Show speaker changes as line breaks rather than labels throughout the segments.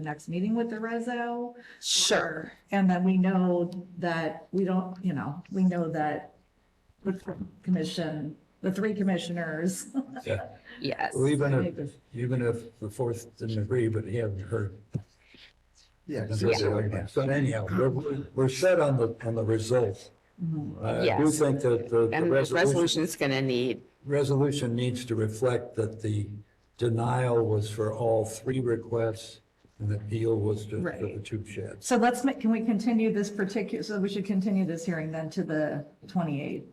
next meeting with the reso.
Sure.
And then we know that we don't, you know, we know that the commission, the three commissioners.
Yes.
Well, Even if, even if the fourth didn't agree, but he hadn't heard.
Yeah.
But anyhow, we're, we're set on the, on the result.
Mhm.
I do
Yes.
think that the- the
And this
resolution,
resolution's gonna need,
resolution needs to reflect that the denial was for all three requests and the appeal was to for the
Right.
two sheds.
So let's make, can we continue this particular, so we should continue this hearing then to the 28th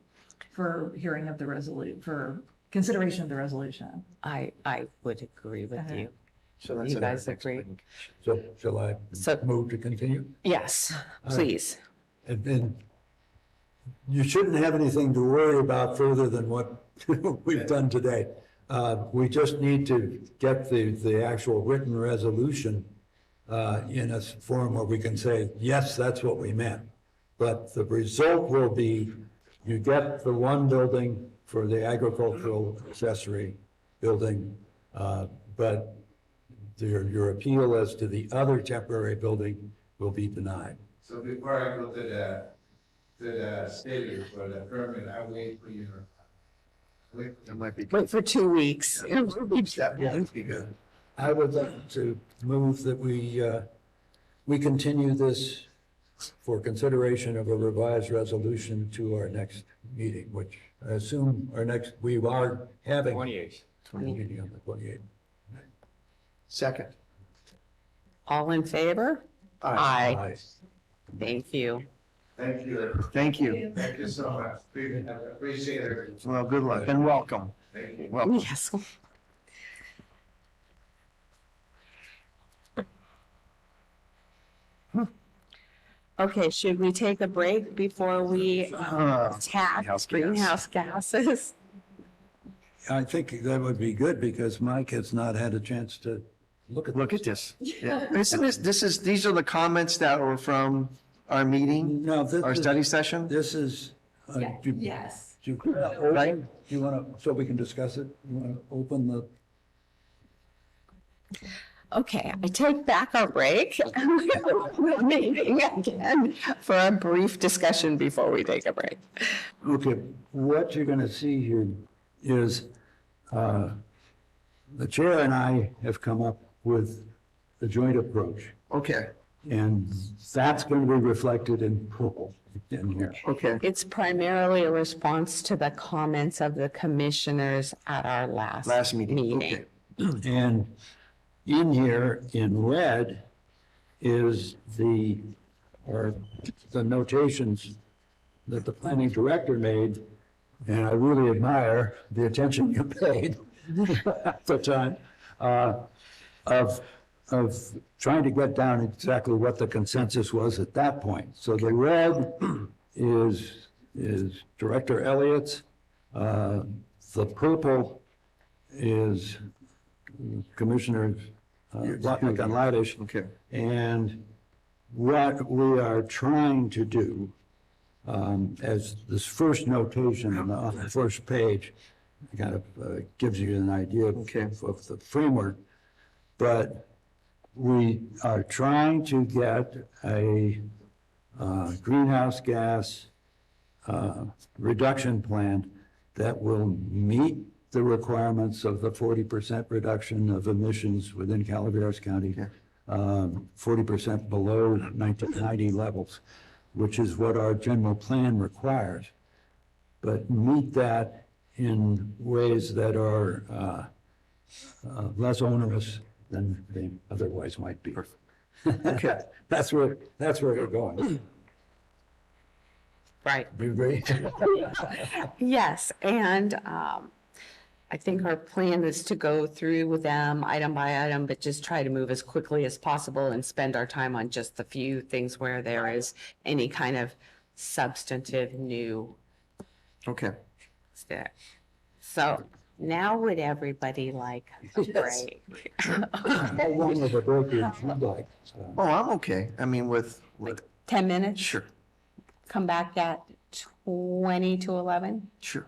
for hearing of the resolu, for consideration of the resolution.
I, I would agree with
Uh-huh.
you.
So
You guys
that's it.
agree?
So shall I
So-
move to continue?
Yes,
right.
please.
And then you shouldn't have anything to worry about further than what we've done today. Uh, We just need to get the, the actual written resolution uh, in a form where we can say, yes, that's what we meant. But the result will be, you get the one building for the agricultural accessory building, uh, but your, your appeal as to the other temporary building will be denied.
So before I go to the, to the city for the permit, I wait for your. Wait,
That might be.
wait for two weeks.
That might be good.
I would like to move that we, uh, we continue this for consideration of a revised resolution to our next meeting, which I assume our next, we are having. Twenty-eighth. Meeting on the twenty-eighth.
Second.
All in favor? Aye. Thank you.
thank you,
Thank you.
thank you so much, Pre- I appreciate it,
Well, good luck and welcome.
thank you.
Well,
Yes. Okay, should we take a break before we
uh,
tax
Greenhouse gas.
greenhouse gases?
I think that would be good because Mike has not had a chance to look at.
look at this. Yeah. Isn't this, this is, these are the comments that were from our meeting,
No, this
our
is-
study session?
This is. uh, do-
Yes.
Do you, do you want to, so we can discuss it? You want to open the,
Okay, I take back our break. We're meeting again for a brief discussion before we take a break.
Okay, what you're gonna see here is, uh, the chair and I have come up with a joint approach,
Okay,
and that's gonna be reflected in purple in here.
okay.
It's primarily a response to the comments of the commissioners at our last.
Last meeting, okay.
And in here, in red, is the, or the notations that the planning director made, and I really admire the attention you paid at the time, uh, of, of trying to get down exactly what the consensus was at that point. So the red is, is Director Elliott's, uh, the purple is Commissioner uh, Lutnick and Laddish.
Okay.
And what we are trying to do, um, as this first notation on the, on the first page, kind of uh, gives you an idea of
Okay.
of the framework. But we are trying to get a, uh, greenhouse gas, uh, reduction plan that will meet the requirements of the forty percent reduction of emissions within Calaveras County, um, forty percent below nineteen ninety levels, which is what our general plan requires. But meet that in ways that are uh, uh, less onerous than they otherwise might be. Okay, That's where, that's where we're going.
Right.
You agree?
Yes, and um, I think our plan is to go through with them item by item, but just try to move as quickly as possible and spend our time on just the few things where there is any kind of substantive new
Okay.
stick. So now would everybody like a break?
How long of a break would you like? Uh, So,
Oh, I'm okay. I mean, with, with,
10 minutes?
sure,
Come back at 20 to 11?
sure.